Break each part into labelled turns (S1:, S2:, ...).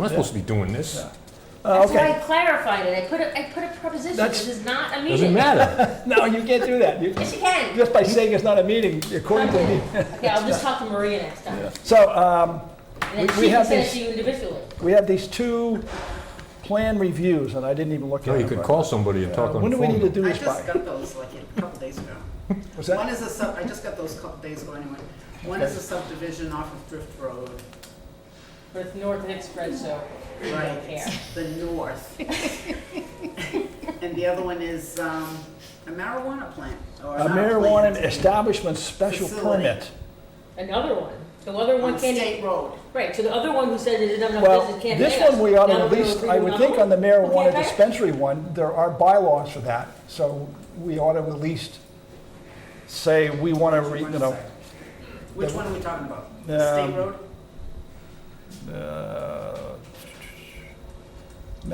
S1: not supposed to be doing this.
S2: Uh,
S3: That's why I
S2: Okay,
S3: clarified it. I put a, I put a preposition.
S2: That's-
S3: This is not
S1: Doesn't
S3: a meeting.
S1: matter.
S2: no, you can't do that. You-
S3: Yes, you can.
S2: Just by saying it's not a meeting, according to me.
S3: Yeah, I'll just talk to Maria next time.
S2: So um,
S3: And
S2: We-
S3: then
S2: we
S3: she can
S2: have
S3: send it
S2: these-
S3: to you individually.
S2: we have these two plan reviews, and I didn't even look at
S1: No,
S2: them.
S1: you could
S2: but-
S1: call somebody and talk on
S2: When
S1: the
S2: do we need to
S1: phone.
S2: do
S4: I
S2: this
S4: just
S2: by?
S4: got those like a couple days ago.
S2: Was
S4: One
S2: that,
S4: is a sub, I just got those a couple days ago anyway. One is a subdivision off of Drift Road,
S3: But it's North Nick spread, so we
S4: right,
S3: don't care.
S4: it's the north. And the other one is um, a marijuana plant, or
S2: a
S4: not
S2: marijuana
S4: plant,
S2: establishment special
S4: Facility.
S2: permit?
S3: Another one. The other
S4: On
S3: one can't,
S4: State Road.
S3: right, so the other one who said it didn't have enough
S2: Well,
S3: business can't pay us.
S2: this one we ought to at
S3: Now we're gonna
S2: least,
S3: approve
S2: I would
S3: another
S2: think on
S3: one?
S2: the
S3: Okay,
S2: marijuana
S3: okay.
S2: dispensary one, there are bylaws for that, so we ought to at least say we want to, you know,
S4: Which one are we talking about? The
S2: Um,
S4: State Road?
S2: uh,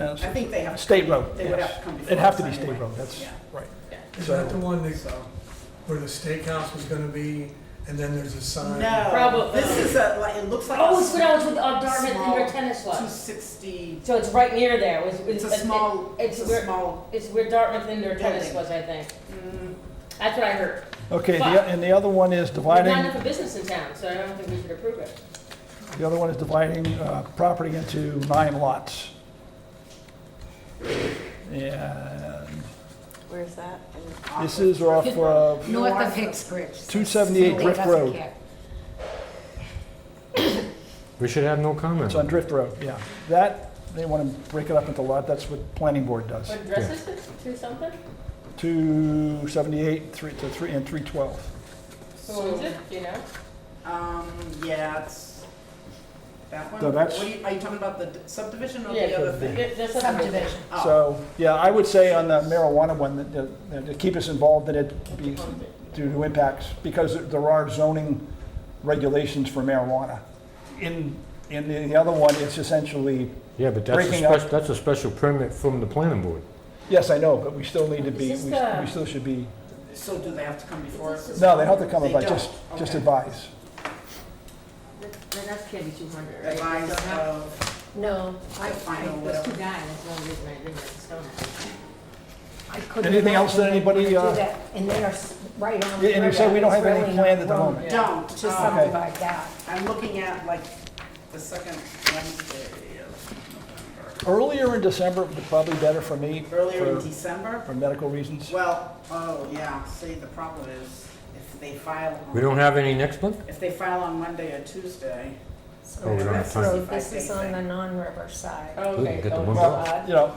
S4: I think they have.
S2: State road,
S4: They would
S2: yes.
S4: have to come before.
S2: It'd have to
S4: us
S2: be state
S4: anyway.
S2: road, that's
S4: Yeah.
S2: right.
S5: Is
S2: So-
S5: that the one that,
S4: So,
S5: where the steakhouse was gonna be, and then there's a sign?
S4: no,
S3: Probably.
S4: this is a, like, it looks like.
S3: Oh, it's when I was with uh, Dartmouth
S4: Small-
S3: under tennis
S4: Two
S3: was.
S4: sixty,
S3: So it's right near there. It was-
S4: it's a
S3: it-
S4: small,
S3: It's
S4: it's a
S3: where-
S4: small
S3: It's where Dartmouth indoor tennis
S4: Building.
S3: was,
S4: Mm.
S3: I think. That's what I heard.
S2: Okay, the
S3: But-
S2: and the other one is
S3: There's
S2: dividing,
S3: not enough of business in town, so I don't think we should approve it.
S2: the other one is dividing uh, property into nine lots. And
S6: Where's that?
S2: this is off of
S6: North of Hicks Bridge.
S2: 278
S6: Somebody
S2: Drift
S6: doesn't
S2: Road.
S6: care.
S1: We should have no comment.
S2: It's on Drift Road, yeah. That, they want to break it up into lot, that's what planning board does.
S3: What address is it? Two something?
S2: 278, 3, to 3, and 312.
S3: What was it? Do you know?
S4: Um, yeah, it's that one.
S2: No, that's-
S4: What are you, are you talking about the d- subdivision or
S3: Yeah,
S4: the other thing?
S3: Th- That's something.
S6: Subdivision.
S4: Oh,
S2: So, yeah, I would say on the marijuana one, that- that, that to keep us involved in it be- due to impacts, because there are zoning regulations for marijuana. In, in the- the other one, it's essentially,
S1: Yeah, but that's a
S2: Breaking up.
S1: special, that's a special permit from the planning board.
S2: yes, I know, but we still need to be,
S3: Is
S2: we
S3: this the-
S2: we still should be,
S4: So do they have to come before us?
S2: no, they have to come
S4: They
S2: about,
S4: don't.
S2: just, just
S4: Okay.
S2: advise.
S3: Th- Then that's can't be two hundred, right?
S4: Advise
S3: Don't have-
S4: of,
S6: No, I,
S4: Fine,
S6: I
S4: or
S6: was
S4: whatever.
S6: too,
S3: Nine, that's one reason I didn't, it's so nice.
S6: I couldn't.
S2: Anything else that
S6: imagine they
S2: anybody,
S6: would do
S2: uh,
S6: that. And they are s- right on.
S2: Yeah, and you said we don't have any planned
S6: plans
S2: at the moment.
S4: don't,
S6: To
S4: um,
S6: subdivide that.
S4: I'm looking at like the second Wednesday of
S2: Earlier in December would probably better for me,
S4: November. Earlier in
S2: for,
S4: December?
S2: for medical reasons.
S4: Well, oh, yeah, see, the problem is if they file,
S1: We
S4: on-
S1: don't have any next month?
S4: if they file on Monday or Tuesday,
S1: Oh, we don't have time.
S6: So This is on the non-river side.
S3: Oh, Okay.
S1: Get the
S3: Oh,
S1: one
S3: it's
S1: bill.
S3: odd.
S2: Well, you know,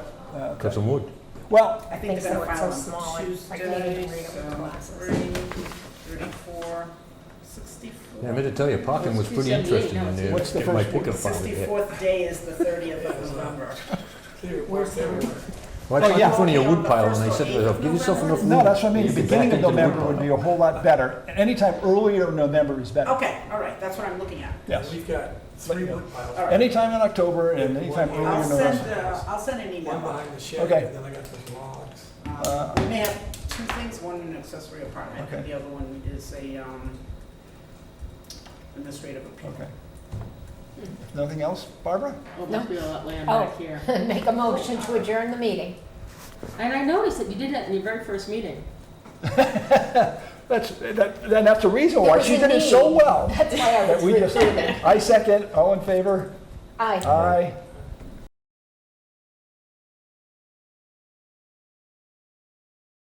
S2: uh,
S1: Cut some wood.
S2: well,
S4: I think
S6: think
S4: they're
S6: so,
S4: gonna
S6: it's
S4: file
S6: so small,
S4: on
S6: I- I
S4: Tuesday,
S6: can't even read it with
S4: so
S6: glasses.
S4: 30, 34, 64.
S1: Yeah, I meant to tell you, parking was pretty
S3: 278,
S1: interesting in there.
S3: no,
S2: it's- What's the
S1: Get my
S2: first one?
S1: pickup
S4: The
S1: finally hit.
S4: 64th day is the 30th of November.
S6: Where's the river?
S1: Well, I
S2: Oh,
S1: parked
S2: yeah.
S1: in front of your wood
S4: Okay,
S1: pile
S4: on
S1: and
S4: the
S1: I said to
S4: first
S1: myself,
S4: or
S1: give yourself
S4: eighth
S1: enough room.
S2: no, that's what I mean,
S1: You
S2: the
S1: can Hmm. back
S2: beginning of
S1: into the wood
S2: November would
S1: pile.
S2: be a whole lot better. Anytime earlier in November is better.
S4: Okay, all right, that's what I'm looking at.
S2: Yes.
S5: We've got three wood piles.
S4: All right.
S2: Anytime in October and anytime
S5: I'll
S2: earlier
S4: I'll
S2: in
S4: send,
S2: November.
S4: uh, I'll send an
S5: One
S4: email.
S5: behind the shed,
S2: Okay.
S5: and then I got those logs.
S4: Uh, We may have two things, one an accessory apartment, and
S2: Okay.
S4: the other one is a um, administrative appeal.
S2: Okay. Nothing else, Barbara?
S3: Oh, must be a lot land
S6: Oh.
S3: back here.
S6: Make a motion to adjourn the meeting.
S3: And I noticed that you did that in your very first meeting.
S2: That's, that, then that's the reason why
S6: There
S2: she
S6: was a
S2: did it so
S6: need.
S2: well.
S6: That's why I
S2: That
S6: was.
S2: we just, I second, all in favor?
S6: Aye.
S2: Aye.